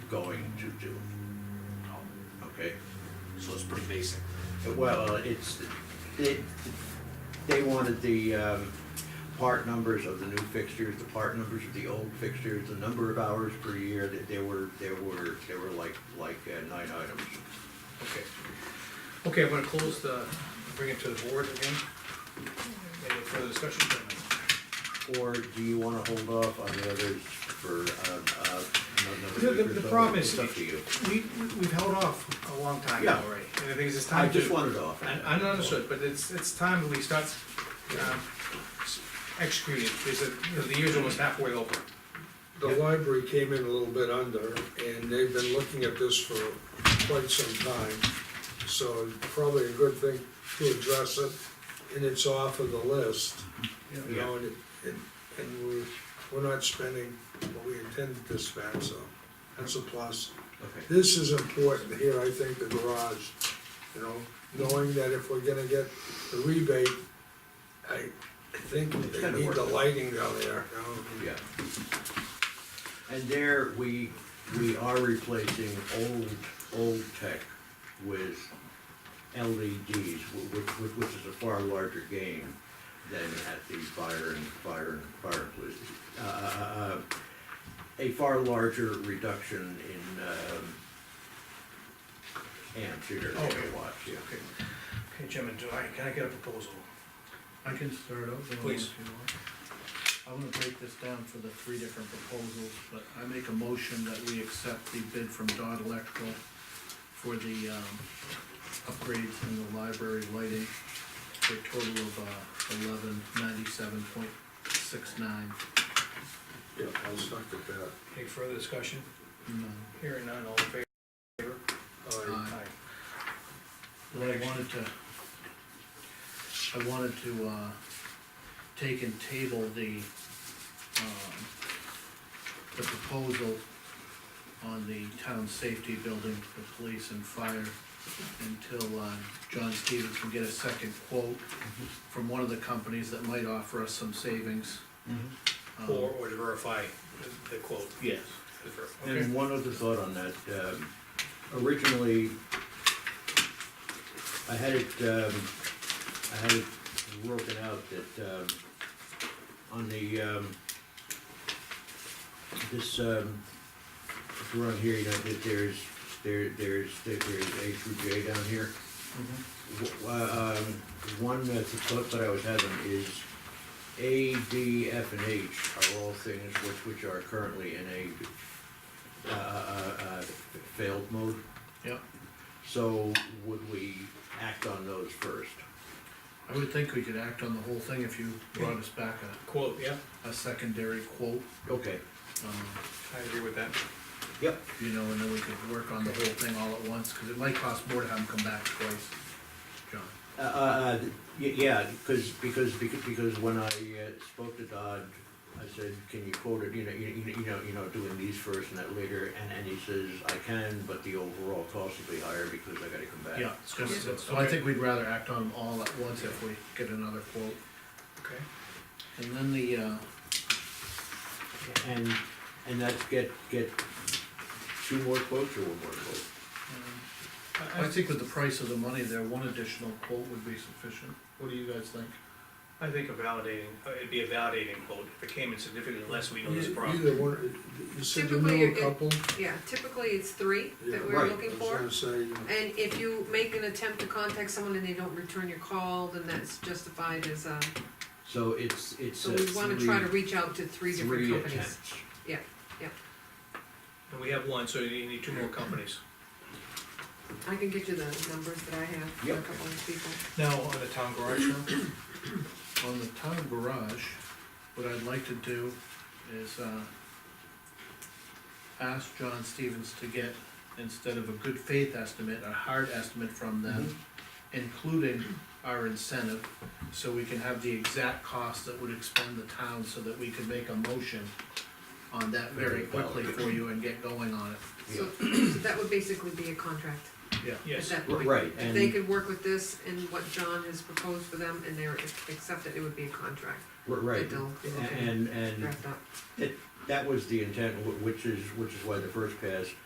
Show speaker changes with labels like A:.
A: going to do. Okay,
B: So it's pretty basic.
A: well, it's, they, they wanted the, um, part numbers of the new fixtures, the part numbers of the old fixtures, the number of hours per year, that there were, there were, there were like, like uh, nine items.
C: Okay. Okay, I'm gonna close the, bring it to the board again. Any further discussion?
A: Or do you wanna hold off on the others for, um, uh,
C: The-
A: another
C: the-
A: week or
C: the
A: so?
C: problem is-
A: It's up to you.
C: We, we- we've held off a long time
A: Yeah.
C: already, and the thing is, it's
A: I
C: time to.
A: just wanted off.
C: I, I understood, but it's, it's time we start, um, s- executing, because it- you know, the year's almost halfway over.
D: The library came in a little bit under, and they've been looking at this for quite some time. So it's probably a good thing to address it, and it's off of the list, you know, and, it- and- and we're, we're not spending what we intended to spend, so that's a plus.
A: Okay.
D: This is important here, I think, the garage, you know, knowing that if we're gonna get the rebate, I I think
A: It's
D: they
A: gonna
D: need
A: work.
D: the lighting down there, you know?
A: Yeah. And there, we, we are replacing old, old tech with LEDs, wh- which, which which is a far larger gain than at the fire and, fire and, fire and police. Uh, uh, uh, A far larger reduction in, um, amps, here,
C: Okay.
A: kilowatts, yeah.
C: Okay, Okay, Jim, do I, can I get a proposal?
E: I can start out. Bill,
C: Please.
E: if you want. I'm gonna break this down for the three different proposals, but I make a motion that we accept the bid from Dodd Electrical for the, um, upgrades in the library lighting for a total of, uh, eleven ninety-seven point six nine.
D: Yeah, I'll suck at that.
C: Any further discussion? Hearing none, all in favor? Uh,
D: All right.
E: Aye. Well, I wanted to, I wanted to, uh, take and table the, um, the proposal on the town safety building for police and fire until, uh, John Stevens can get a second quote from one of the companies that might offer us some savings. Um,
C: Or, or to verify the- the quote.
E: Yes.
C: The ver- Okay.
A: And one other thought on that, um, originally, I had it, um, I had it broken out that, um, on the, um, this, um, if we're on here, you know, that there's, there, there's, there's A through J down here.
E: Mm-hmm.
A: W- Um, one that's a thought that I was having is A, D, F, and H are all things which, which are currently in a uh, uh, uh, failed mode,
E: Yeah,
A: so would we act on those first?
E: I would think we could act on the whole thing if you brought us back
C: Quote, yeah,
E: a, a secondary quote.
A: Okay,
E: Um,
C: I agree with that.
A: yep,
E: you know, and then we could work on the whole thing all at once, cause it might cost more to have them come back twice, John.
A: uh, uh, y- yeah, because, because, beca- because when I uh, spoke to Dodd, I said, can you quote it, you know, you you- you know, you know, doing these first and that later, and, and he says, I can, but the overall cost will be higher because I gotta come back.
E: Yeah, it's gonna- so I think we'd rather act on them all at once if we get another quote.
C: Okay.
E: And then the, uh,
A: And, and that's get, get two more quotes or one more quote?
C: Mm-hmm.
E: I think with the price of the money there, one additional quote would be sufficient. What do you guys think?
C: I think a validating, uh, it'd be a validating quote, if it came in significantly less, we know this
D: E-
C: problem.
D: Either one, you said you
F: Typically,
D: knew a
F: it-
D: couple?
F: Yeah, typically it's three
D: Yeah.
F: that we're
A: Right.
F: looking
D: I
F: for.
D: was gonna say, you know,
F: And if you make an attempt to contact someone and they don't return your call, then that's justified as a,
A: So it's, it's
F: so
A: uh,
F: we wanna try to
A: three,
F: reach out to three different
A: three
F: companies.
A: attempts.
C: And we have one, so you need two more companies.
F: I can get you the numbers that I have for a
A: Yep.
F: couple of people.
C: Now, on the town garage now?
E: On the town garage, what I'd like to do is, uh, ask John Stevens to get, instead of a good faith estimate, a hard estimate from them, including our incentive, so we can have the exact cost that would expend the town, so that we could make a motion on that very quickly for you and get going on it,
F: So, so that would basically be a contract
E: yeah.
F: at
C: Yes,
F: that
A: R-
F: point.
A: right,
F: If they
A: and-
F: could work with this and what John has proposed for them and they're accepted, it would be a contract
A: We're Right,
F: That they'll-
A: and, and
F: wrapped up.
A: that was the intent, wh- which is, which is why the first pass